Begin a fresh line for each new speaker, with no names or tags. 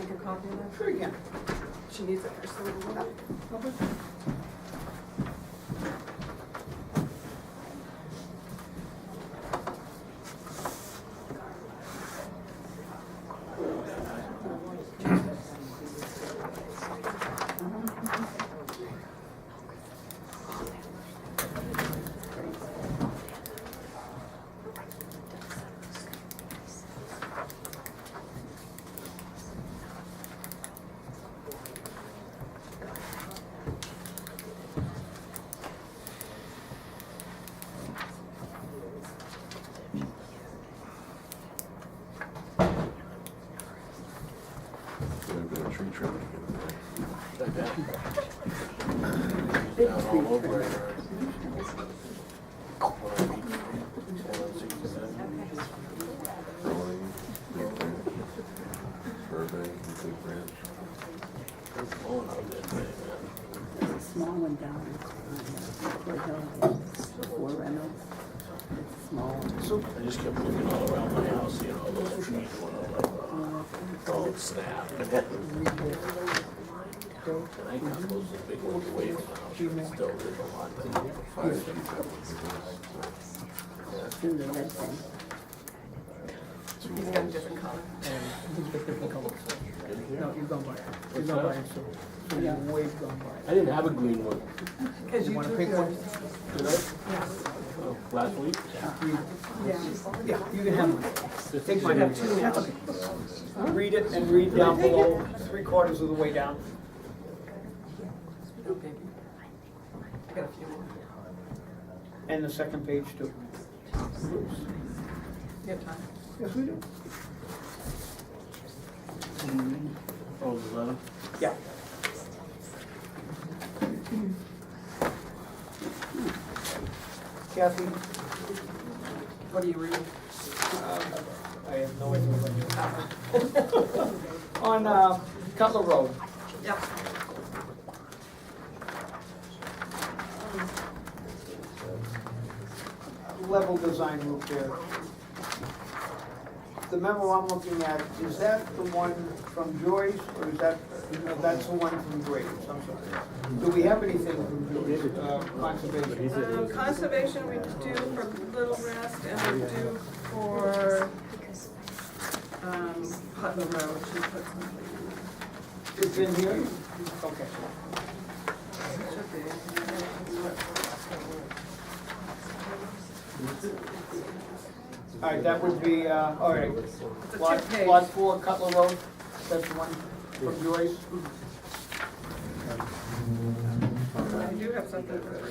of her again. She needs it first, so we'll go up. Okay.
I've got a tree trimmer to get away.
Down all over it. Well,
Rolling, Big Branch, Burbank, Big Branch.
it's blowing out that thing, man.
There's a small one down on Fort Hill, before Reynolds. It's a small one.
I just kept looking all around my house, seeing all those trees going all like, oh, snap. And I got those big ones away from the house, but still, there's a lot that
Fire chief, that would be nice.
It's in the red thing.
He's got a different color.
No, you're gone by, you're gone by, so, so you're way gone by.
I didn't have a green one,
Cause you
Want a
took
pink one?
yours.
did I? Oh, Last week?
Yeah, you can have one. Take mine, have two. That's okay. Read it and read down below, three quarters of the way down.
No, baby. I got a few more.
And the second page too.
You have time?
Yes, we do.
Oh, it was eleven?
Yeah. Kathy,
What are you reading?
I have no idea what you're. On uh, Cutler Road.
Yep.
level design roof there. The memo I'm looking at, is that the one from Joyce, or is that, no, that's the one from Graves, I'm sorry. Do we have anything from Joyce, uh, conservation?
Um, conservation we do for Little Rest and we do for, um, Putnam Road, she put something in there.
It's in here? Okay.
Should be.
All right, that would be, uh, all right.
It's a
Lot,
two-page.
lot four, Cutler Road, that's the one from Joyce?
I do have something for three.